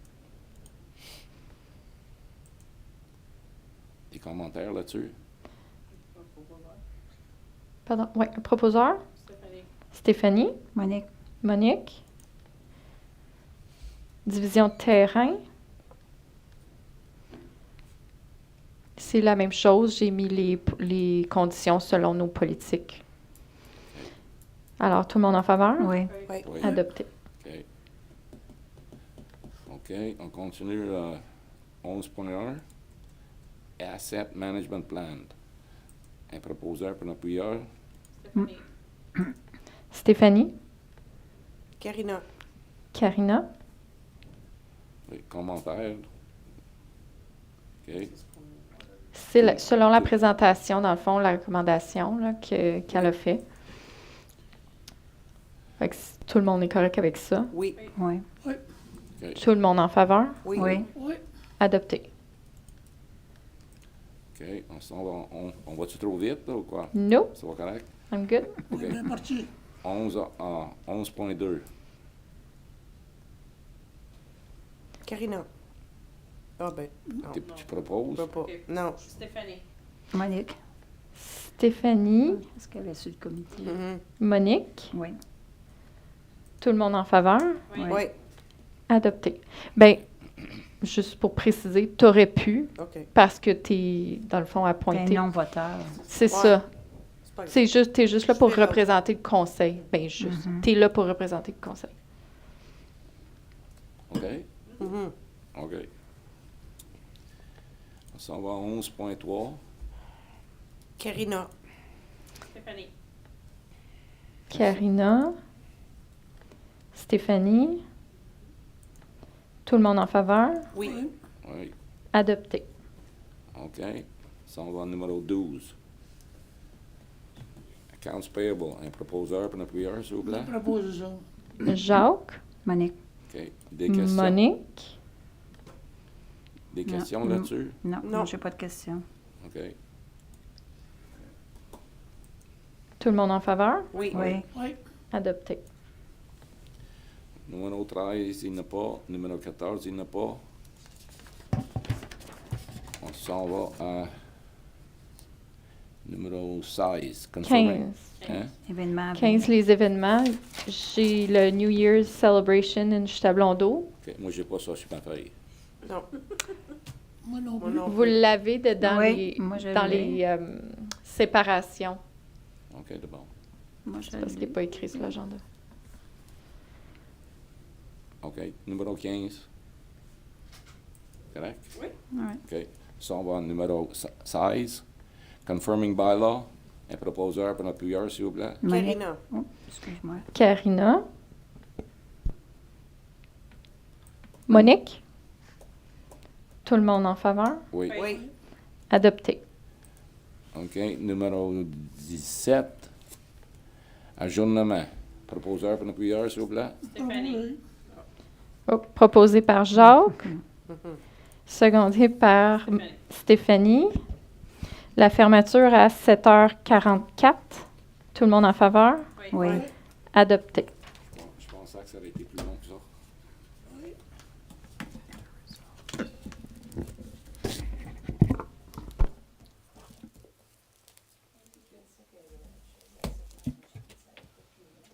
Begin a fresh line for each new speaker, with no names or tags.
commentaires là-dessus?
Pardon, ouais, proposeur, Stéphanie,
Monique,
Monique. Division de terrain. C'est la même chose, j'ai mis les, p- les conditions selon nos politiques. Alors, tout le monde en faveur?
oui.
Oui.
Adopté.
OK. OK, on continue euh, 11.1. Asset Management Plan. Un proposeur pour un appuyeur.
Stéphanie,
Karina.
Karina,
Les commentaires. OK.
c'est la- selon la présentation, dans le fond, la recommandation là, que- qu'elle a fait. Fait que si tout le monde est correct avec ça.
Oui.
Oui.
Tout le monde en faveur?
Oui.
Oui.
Adopté.
OK. On, s'en va- on- on va-tu trop vite là, ou quoi?
No,
Ça va correct?
I'm good.
OK.
bien parti.
11, euh, 11.2.
Karina. Ah ben, non.
Tu- Tu proposes?
Je peux pas. Non.
Stéphanie.
Monique,
Stéphanie,
est-ce qu'elle est sur le comité?
Mhm.
Monique,
Oui.
tout le monde en faveur?
Oui.
Oui.
Adopté. Ben, juste pour préciser, t'aurais pu,
OK.
parce que t'es, dans le fond,
Un
appointé.
non-voteur.
C'est
Ouais.
ça.
C'est pas grave.
C'est juste, t'es juste là pour
Je suis là.
représenter le conseil. Ben, juste, t'es là pour représenter le conseil.
OK?
Mhm.
OK. On s'en va à 11.3.
Karina.
Stéphanie.
Karina, Stéphanie, tout le monde en faveur?
Oui.
Oui.
Adopté.
OK. On s'en va au numéro 12. Accounts payable. Eh, Un proposeur pour un appuyeur, s'il vous plaît.
Je propose ça.
Jacques,
Monique,
OK. Des questions,
Monique,
Des questions
Mm.
là-dessus?
non,
Non.
non, j'ai pas de question.
OK.
tout le monde en faveur?
Oui.
Oui,
Oui,
Adopté.
Numéro 13, il n'y en a pas. Numéro 14, il n'y en a pas. On s'en va à numéro 16. Confirming.
15.
Hein?
événement. à
15,
venir.
les événements. J'ai le New Year's Celebration in Chutablondeau.
OK. Moi, j'ai pas ça sur ma feuille.
Non.
moi non
Moi
plus.
non
Vous
plus.
l'avez de- dans
Oui, moi, je
les, dans
l'ai.
les euh, séparations.
OK, c'est bon.
Moi, je
C'est parce qu'il n'est pas écrit sur l'agenda.
OK. Numéro 15. Correct?
Ouais.
OK. S'en va au numéro se- 16. Confirming bylaw. E Un proposeur pour un appuyeur, s'il vous plaît.
Monique,
Karina.
oh, excuse-moi.
Karina. Monique. Tout le monde en faveur.
Oui.
Oui.
Adopté.
OK. Numéro 17. Ajournement. Proposeur pour un appuyeur, s'il vous plaît.
Stéphanie.
Oh, proposé par Jacques. Secondé par M-
Stéphanie.
Stéphanie. La fermeture à 7h44. Tout le monde en faveur.
Oui,
Oui.
Adopté.
Bon, je pensais que ça aurait été